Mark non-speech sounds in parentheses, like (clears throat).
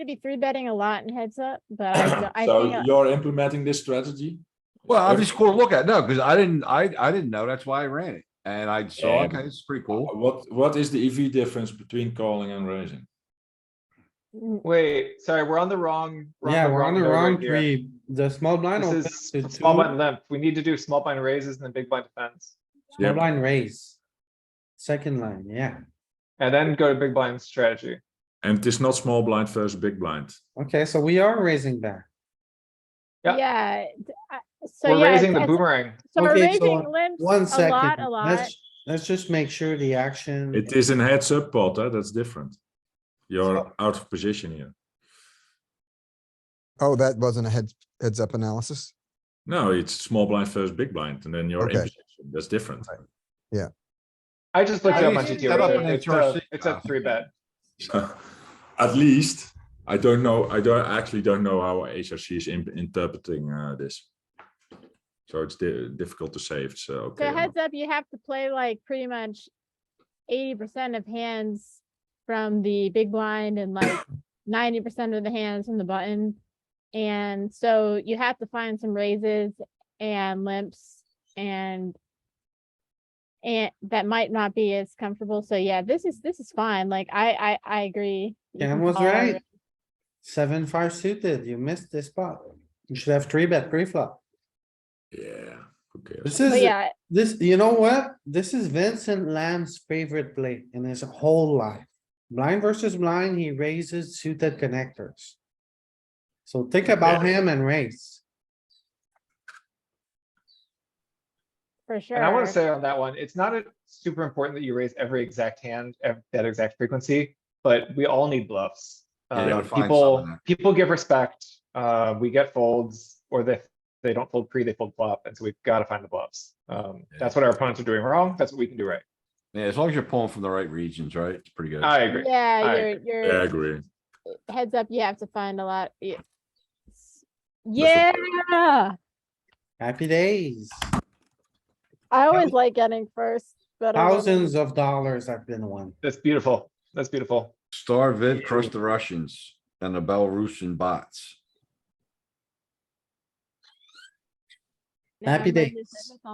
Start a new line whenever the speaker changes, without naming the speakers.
to be three betting a lot in heads up, but I,
(clears throat) (coughs)
d- I think, uh,
So
I-
you're implementing this strategy?
Well, I'm
If-
just cool to look at, no, because I didn't, I, I didn't know, that's why I ran it, and I saw,
Yeah.
okay, it's pretty cool.
What, what is the EV difference between calling and raising?
mm,
Wait, sorry, we're on the wrong.
Yeah, we're on the
node right
wrong
here.
three. The small blind
This
opens
is
to two,
s- small blind
small
limp. We need to do small blind raises and then big blind defense.
Yeah.
blind raise. Second line, yeah.
And then go to big blind strategy.
And it is not small blind versus big blind.
Okay, so we are raising back.
Yeah.
yeah. d- I- So
We're
yeah,
raising the
it's-
boomerang.
so we're
Okay,
raising
so
limps
One
a lot,
second,
a lot.
let's, let's just make sure the action.
It is in heads up pot, huh? that's different. You're
So-
out of position here.
Oh, that wasn't a heads, heads up analysis?
No, it's small blind versus big blind, and then you're in
Okay.
position. That's different. (laughs)
Right.
I just looked it
Yeah,
up
you
on
should
GTO.
set up
right?
an
It's
HRC
a- It's a
now.
three bet.
At least, I don't know, I don't, I actually don't know how HRC is in- interpreting uh, this. So it's di- difficult to say if it's uh, okay.
So
or not.
heads up, you have to play like pretty much eighty percent of hands from the big blind and like ninety percent of the hands from the button. And so you have to find some raises and limps and and that might not be as comfortable. So yeah, this is, this is fine. Like I, I, I agree. You
Cam
can
was
call
right.
it.
Seven, five suited, you missed this spot. You should have three bet pre-flop.
Yeah, okay.
This
But
is,
yeah,
this, you know what? This is Vincent Lamb's favorite play in his whole life. Blind versus blind, he raises suited connectors. So think about him and raise.
for sure.
And I want to say on that one, it's not a- super important that you raise every exact hand at that exact frequency, but we all need bluffs.
Yeah, you
Uh,
gotta find
people,
something.
people give respect. Uh, we get folds or they, they don't fold pre, they fold flop. And so we've got to find the bluffs. Um,
Yeah.
that's what our opponents are doing wrong. That's what we can do right.
Yeah, as long as you're pulling from the right regions, right, it's pretty good.
I agree.
Yeah,
I
you're,
Yeah,
you're.
I agree.
heads up, you have to find a lot. yeah.
That's
Yeah,
Happy days.
I always like getting first, but. I wasn't.
Thousands of dollars have been won.
That's beautiful. That's beautiful.
Star Vid crushed the Russians and the Belarusian bots.
Now
Happy
my mind is
days.
never